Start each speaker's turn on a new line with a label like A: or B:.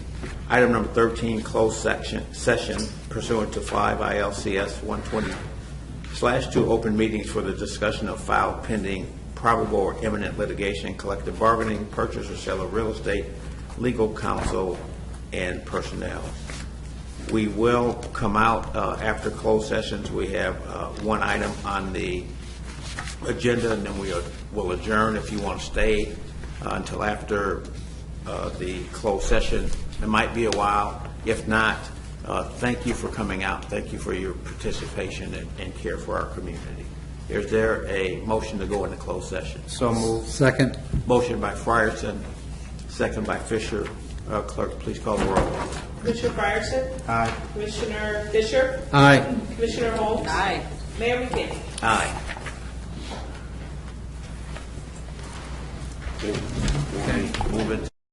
A: Item number 13, closed section, session pursuant to 5 ILCS 120 slash 2, open meetings for the discussion of file pending probable or imminent litigation, collective bargaining, purchase or sale of real estate, legal counsel, and personnel. We will come out uh, after closed sessions. We have uh, one item on the agenda, and then we uh, will adjourn if you want to stay uh, until after uh, the closed session. It might be a while. If not, uh, thank you for coming out. Thank you for your participation and- and care for our community. Is there a motion to go into closed session?
B: So moved.
C: Second.
A: Motion by Frierson, second by Fisher. Uh, Clerk, please call the roll.
D: Commissioner Fryerson?
B: Aye.
D: Commissioner Fisher?
C: Aye.
D: Commissioner Holmes? Aye. Mayor McKinney?
A: Aye. Okay, move it.